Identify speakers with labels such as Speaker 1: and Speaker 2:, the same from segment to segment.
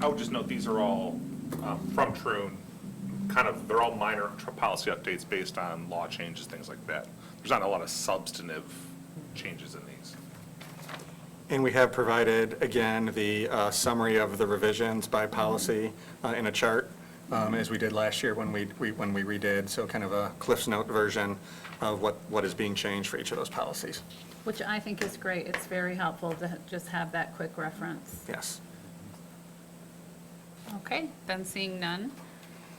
Speaker 1: I would just note, these are all um, from Trune, kind of, they're all minor tr- policy updates based on law changes, things like that. There's not a lot of substantive changes in these.
Speaker 2: And we have provided, again, the uh, summary of the revisions by policy uh, in a chart, um, as we did last year when we, we- when we redid, so kind of a Cliff's Note version of what, what is being changed for each of those policies.
Speaker 3: Which I think is great. It's very helpful to just have that quick reference.
Speaker 2: Yes.
Speaker 3: Okay, then seeing none,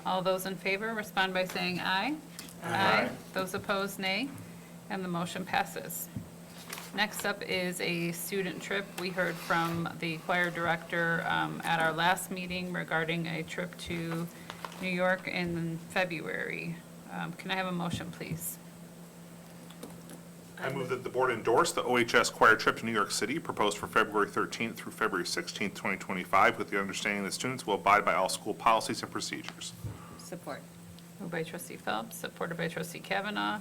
Speaker 3: all those in favor respond by saying aye. Aye. Those opposed, nay, and the motion passes. Next up is a student trip. We heard from the choir director um, at our last meeting regarding a trip to New York in February. Um, Can I have a motion, please?
Speaker 1: I move that the board endorse the OHS choir trip to New York City proposed for February 13th through February 16th, 2025, with the understanding that students will abide by all school policies and procedures.
Speaker 4: Support.
Speaker 3: Moved by trustee Phelps, supported by trustee Kavanaugh.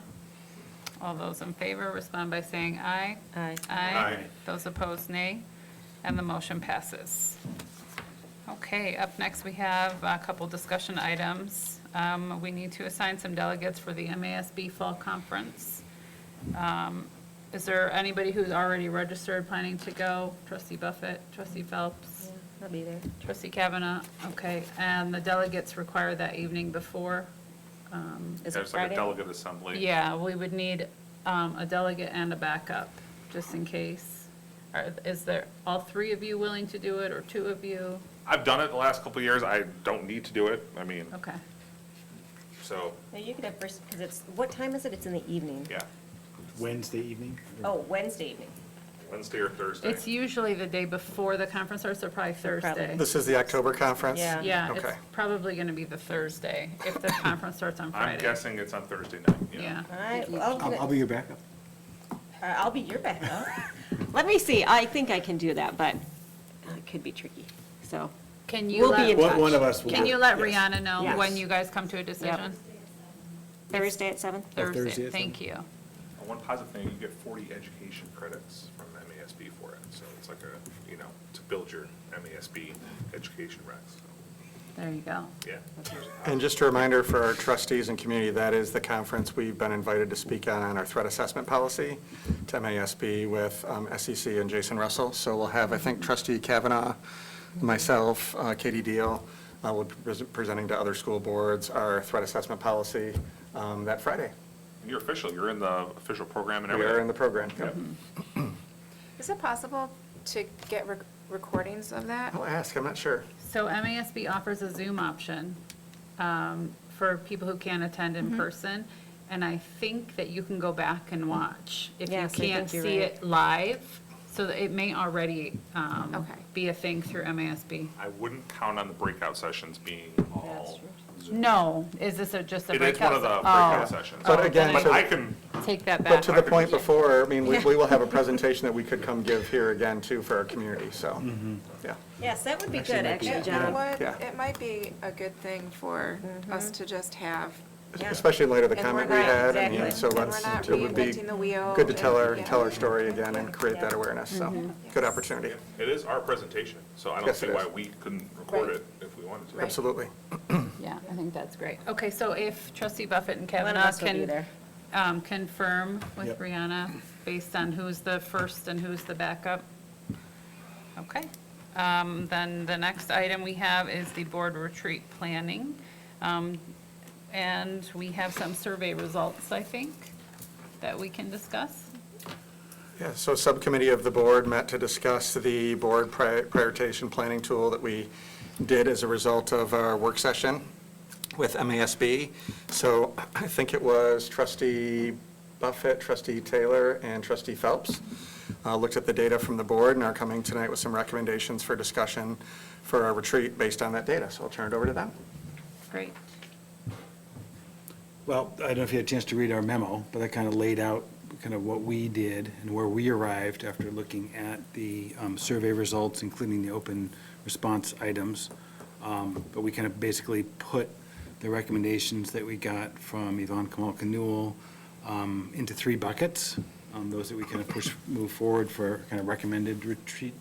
Speaker 3: All those in favor respond by saying aye.
Speaker 4: Aye.
Speaker 1: Aye.
Speaker 3: Those opposed, nay. And the motion passes. Okay, up next, we have a couple discussion items. Um, We need to assign some delegates for the MASB Fall Conference. Um, Is there anybody who's already registered planning to go? Trustee Buffett, trustee Phelps,
Speaker 4: I'll be there.
Speaker 3: trustee Kavanaugh? Okay, and the delegates require that evening before?
Speaker 4: Is it
Speaker 1: There's like a
Speaker 4: Friday?
Speaker 1: delegate assembly.
Speaker 3: Yeah, we would need um, a delegate and a backup, just in case. Are- Is there, all three of you willing to do it, or two of you?
Speaker 1: I've done it the last couple of years. I don't need to do it. I mean,
Speaker 3: Okay.
Speaker 1: so,
Speaker 4: No, you could have first, because it's, what time is it? It's in the evening.
Speaker 1: yeah,
Speaker 5: Wednesday evening?
Speaker 4: Oh, Wednesday evening.
Speaker 1: Wednesday or Thursday.
Speaker 3: It's usually the day before the conference starts, or probably Thursday.
Speaker 2: This is the October conference?
Speaker 4: Yeah.
Speaker 3: Yeah, it's
Speaker 2: Okay.
Speaker 3: probably going to be the Thursday, if the conference starts on Friday.
Speaker 1: I'm guessing it's on Thursday night.
Speaker 3: Yeah.
Speaker 4: All right, well,
Speaker 5: I'll, I'll
Speaker 4: I'll
Speaker 5: be your backup.
Speaker 4: I'll be your backup. Let me see, I think I can do that, but uh, it could be tricky, so.
Speaker 3: Can you
Speaker 4: We'll be in
Speaker 3: let,
Speaker 5: One- one of
Speaker 4: touch.
Speaker 5: us will
Speaker 3: can
Speaker 5: do it,
Speaker 3: you let
Speaker 5: yes.
Speaker 3: Rihanna know
Speaker 4: Yes.
Speaker 3: when you guys come to a decision?
Speaker 4: Thursday at seven?
Speaker 3: Thursday,
Speaker 5: Thursday, I
Speaker 3: thank
Speaker 5: think.
Speaker 3: you.
Speaker 1: And One positive thing, you get 40 education credits from MASB for it. So it's like a, you know, to build your MASB education recs. So,
Speaker 3: There you go.
Speaker 1: Yeah.
Speaker 2: And just a reminder for our trustees and community, that is the conference we've been invited to speak on, on our threat assessment policy to MASB with um, SEC and Jason Russell. So we'll have, I think, trustee Kavanaugh, myself, uh, Katie Deal, uh, will be pres- presenting to other school boards our threat assessment policy um, that Friday.
Speaker 1: You're official, you're in the official program and
Speaker 2: We
Speaker 1: everything.
Speaker 2: are in the program. Yep.
Speaker 1: Yep.
Speaker 6: Is it possible to get rec- recordings of that?
Speaker 2: I'll ask, I'm not sure.
Speaker 3: So MASB offers a Zoom option um, for people who can't attend
Speaker 4: Mm-hmm.
Speaker 3: in person, and I think that you can go back and watch. If you
Speaker 4: Yes, I think
Speaker 3: can't see
Speaker 4: you're right.
Speaker 3: it live, so that it may already um,
Speaker 6: Okay.
Speaker 3: be a thing through MASB.
Speaker 1: I wouldn't count on the breakout sessions being all. Zoom.
Speaker 3: No, is this a- just a
Speaker 1: It
Speaker 3: breakout?
Speaker 1: is one of the
Speaker 3: se-
Speaker 1: breakout sessions.
Speaker 2: But again,
Speaker 1: But
Speaker 2: so-
Speaker 1: I can,
Speaker 3: Oh, Take that
Speaker 2: But
Speaker 3: back.
Speaker 2: to the point before, I mean, we we will have a presentation that we could come give here again, too, for our community, so, yeah.
Speaker 4: Yes, that would be
Speaker 5: Actually,
Speaker 4: good,
Speaker 5: it might be-
Speaker 4: actually,
Speaker 6: It- You know
Speaker 4: John.
Speaker 6: what?
Speaker 2: Yeah.
Speaker 6: It might be a good thing for us to just have.
Speaker 4: Yeah.
Speaker 2: Especially in light of the
Speaker 6: and we're
Speaker 2: comment we
Speaker 6: not-
Speaker 2: had, and
Speaker 4: exactly.
Speaker 2: yeah, so
Speaker 6: And we're
Speaker 2: let's,
Speaker 6: not
Speaker 2: it would be
Speaker 6: reinventing the wheel
Speaker 2: good to tell our,
Speaker 6: and- Mm-hmm.
Speaker 2: tell our story again and create that
Speaker 4: Yeah.
Speaker 2: awareness, so, good opportunity,
Speaker 1: it is our presentation, so I don't
Speaker 2: Yes,
Speaker 1: see
Speaker 2: it
Speaker 1: why
Speaker 2: is.
Speaker 1: we couldn't record
Speaker 6: Right.
Speaker 1: it if we wanted to.
Speaker 6: Right.
Speaker 2: absolutely.
Speaker 3: Yeah, I think that's great. Okay, so if trustee Buffett and
Speaker 4: One of
Speaker 3: Kavanaugh
Speaker 4: us will be
Speaker 3: can
Speaker 4: there.
Speaker 3: um, confirm with
Speaker 5: Yep.
Speaker 3: Rihanna based on who's the first and who's the backup. Okay. Um, Then the next item we have is the board retreat planning. Um, And we have some survey results, I think, that we can discuss.
Speaker 2: Yeah, so subcommittee of the board met to discuss the board pri- prioritization planning tool that we did as a result of our work session with MASB. So I think it was trustee Buffett, trustee Taylor, and trustee Phelps uh, looked at the data from the board and are coming tonight with some recommendations for discussion for our retreat based on that data. So I'll turn it over to them.
Speaker 3: Great.
Speaker 5: Well, I don't know if you had a chance to read our memo, but I kind of laid out kind of what we did and where we arrived after looking at the um, survey results, including the open response items. Um, But we kind of basically put the recommendations that we got from Yvonne Kamalka Newell um, into three buckets, um, those that we kind of push, move forward for kind of recommended retreat